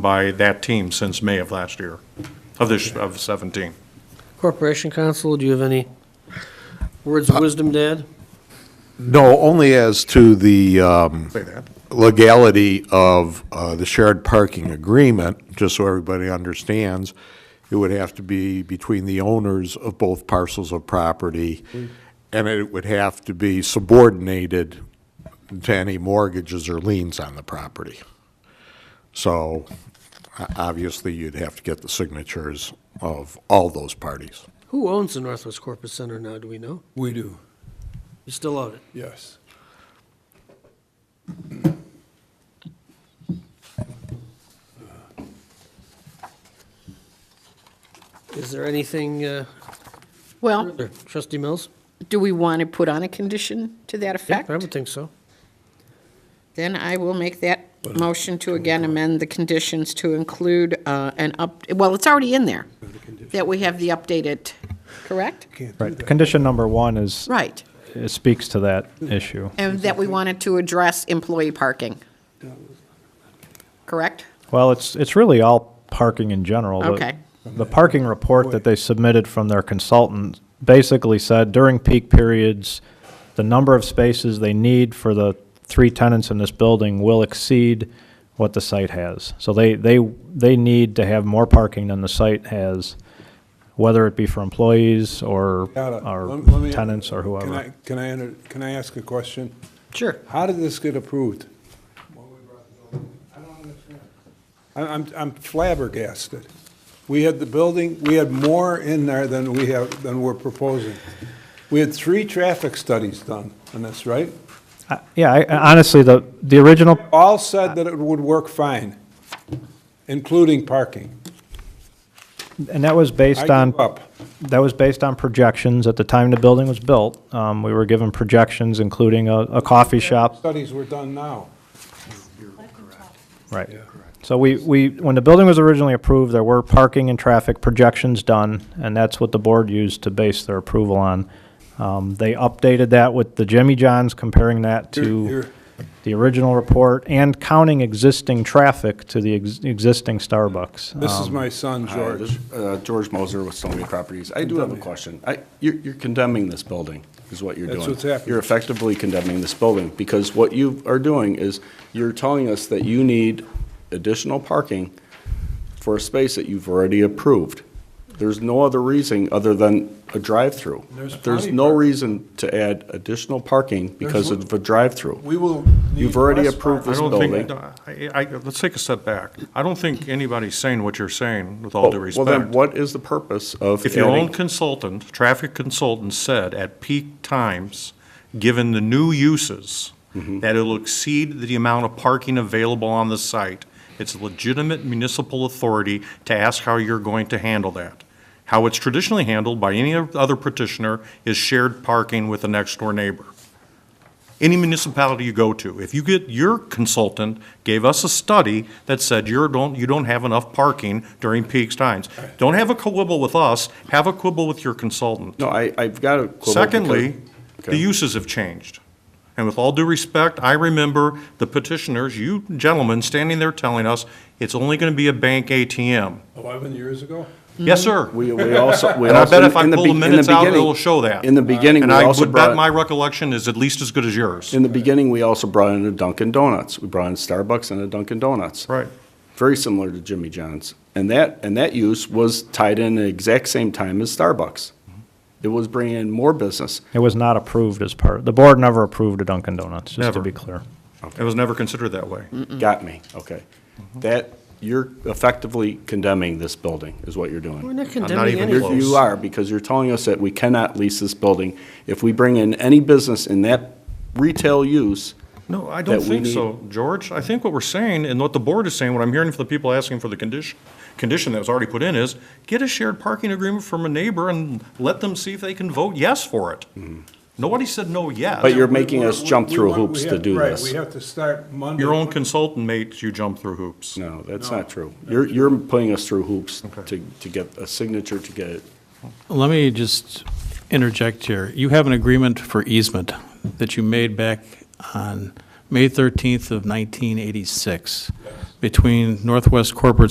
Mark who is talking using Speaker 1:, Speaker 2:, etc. Speaker 1: by that team since May of last year, of this, of 17.
Speaker 2: Corporation Counsel, do you have any words of wisdom to add?
Speaker 3: No, only as to the um,
Speaker 1: Say that.
Speaker 3: legality of uh, the shared parking agreement, just so everybody understands, it would have to be between the owners of both parcels of property,
Speaker 1: Mm-hmm.
Speaker 3: and it would have to be subordinated to any mortgages or liens on the property. So o- obviously, you'd have to get the signatures of all those parties.
Speaker 2: Who owns the Northwest Corporate Center now, do we know?
Speaker 4: We do,
Speaker 2: You still own it?
Speaker 4: yes.
Speaker 2: Is there anything uh,
Speaker 5: Well,
Speaker 2: further? Trustee Mills?
Speaker 5: do we want to put on a condition to that effect?
Speaker 2: I would think so.
Speaker 5: Then I will make that motion to again amend the conditions to include uh, an up, well, it's already in there, that we have the updated, correct?
Speaker 6: Right, condition number one is,
Speaker 5: Right,
Speaker 6: it speaks to that issue.
Speaker 5: and that we wanted to address employee parking, correct?
Speaker 6: Well, it's, it's really all parking in general. The-
Speaker 5: Okay.
Speaker 6: The parking report that they submitted from their consultant basically said during peak periods, the number of spaces they need for the three tenants in this building will exceed what the site has. So they, they, they need to have more parking than the site has, whether it be for employees or,
Speaker 4: Gotta-
Speaker 6: or
Speaker 4: let- let me-
Speaker 6: tenants
Speaker 4: Can
Speaker 6: or
Speaker 4: I,
Speaker 6: whoever.
Speaker 4: can I, enter- can I ask a question?
Speaker 2: Sure.
Speaker 4: How did this get approved? I- I'm, I'm flabbergasted. We had the building, we had more in there than we have, than we're proposing. We had three traffic studies done on this, right?
Speaker 6: I- Yeah, I- honestly, the, the original
Speaker 4: All said that it would work fine, including parking.
Speaker 6: And that was
Speaker 4: I
Speaker 6: based on,
Speaker 4: give up.
Speaker 6: that was based on projections at the time the building was built. Um, we were given projections, including a, a coffee shop,
Speaker 4: Studies were done now.
Speaker 6: right. So we, we, when the building was originally approved, there were parking and traffic projections done, and that's what the board used to base their approval on. Um, they updated that with the Jimmy Johns, comparing that
Speaker 4: You're-
Speaker 6: to
Speaker 4: you're-
Speaker 6: the original report and counting existing traffic to the ex- existing Starbucks. Um,
Speaker 4: This is my son,
Speaker 7: Hi, this
Speaker 4: George.
Speaker 7: is, uh, George Moser with Stony Properties. I do have a question. I- You're you're condemning this building, is what you're doing.
Speaker 4: That's what's happening.
Speaker 7: You're effectively condemning this building, because what you are doing is, you're telling us that you need additional parking for a space that you've already approved. There's no other reason other than a drive-through.
Speaker 4: There's
Speaker 7: There's
Speaker 4: plenty
Speaker 7: no
Speaker 4: park-
Speaker 7: reason to add additional parking because
Speaker 4: There's-
Speaker 7: of a drive-through.
Speaker 4: We will need
Speaker 7: You've already
Speaker 4: less
Speaker 7: approved
Speaker 4: parking.
Speaker 7: this
Speaker 1: I don't think,
Speaker 7: building.
Speaker 1: I, I, let's take a step back. I don't think anybody's saying what you're saying, with all due
Speaker 7: Well, well, then
Speaker 1: respect.
Speaker 7: what is the purpose of
Speaker 1: If your
Speaker 7: adding-
Speaker 1: own consultant, traffic consultant said at peak times, given the new uses,
Speaker 7: Mm-hmm.
Speaker 1: that it'll exceed the amount of parking available on the site, it's a legitimate municipal authority to ask how you're going to handle that. How it's traditionally handled by any other petitioner is shared parking with the next door neighbor. any municipality you go to, if you get, your consultant gave us a study that said you're, don't, you don't have enough parking during peak times. Don't have a quibble with us, have a quibble with your consultant.
Speaker 7: No, I, I've got a quibble.
Speaker 1: Secondly,
Speaker 7: because-
Speaker 1: the
Speaker 7: Okay.
Speaker 1: uses have changed. And with all due respect, I remember the petitioners, you gentlemen, standing there telling us, it's only gonna be a bank ATM.
Speaker 4: 11 years ago?
Speaker 1: Yes, sir.
Speaker 7: We, we also, we
Speaker 1: And I
Speaker 7: also.
Speaker 1: bet if I
Speaker 7: in the
Speaker 1: pull the
Speaker 7: be- in
Speaker 1: minutes out,
Speaker 7: beginning-
Speaker 1: it'll show that.
Speaker 7: In the beginning, we
Speaker 1: And I
Speaker 7: also
Speaker 1: would bet my
Speaker 7: brought,
Speaker 1: recollection is at least as good as yours.
Speaker 7: in the beginning, we also brought in a Dunkin' Donuts. We brought in Starbucks and a Dunkin' Donuts.
Speaker 1: Right.
Speaker 7: Very similar to Jimmy John's. And that, and that use was tied in the exact same time as Starbucks. It was bringing in more business.
Speaker 6: It was not approved as part, the board never approved a Dunkin' Donuts, just
Speaker 1: Never.
Speaker 6: to be clear.
Speaker 1: It was never considered that way.
Speaker 7: Got me, okay.
Speaker 1: Mm-hmm.
Speaker 7: That, you're effectively condemning this building, is what you're
Speaker 2: We're
Speaker 7: doing.
Speaker 2: not condemning
Speaker 1: even
Speaker 2: anything.
Speaker 7: You're-
Speaker 1: close.
Speaker 7: You are, because you're telling us that we cannot lease this building. If we bring in any business in that retail use,
Speaker 1: No, I don't
Speaker 7: that we
Speaker 1: think
Speaker 7: need-
Speaker 1: so, George. I think what we're saying and what the board is saying, what I'm hearing from the people asking for the condition, condition that was already put in is get a shared parking agreement from a neighbor and let them see if they can vote yes for it. Nobody said no yet.
Speaker 7: Mm-hmm. But you're
Speaker 4: We-
Speaker 7: making us
Speaker 4: we-
Speaker 7: jump
Speaker 4: we
Speaker 7: through
Speaker 4: want- we
Speaker 7: hoops
Speaker 4: have-
Speaker 7: to do
Speaker 4: right,
Speaker 7: this.
Speaker 4: we have to start Monday.
Speaker 1: Your own consultant made you jump through hoops.
Speaker 7: No, that's not true. You're, you're putting us through hoops
Speaker 1: Okay.
Speaker 7: to, to get a signature to get it.
Speaker 8: Let me just interject here. You have an agreement for easement that you made back on May 13th of 1986. between Northwest Corporate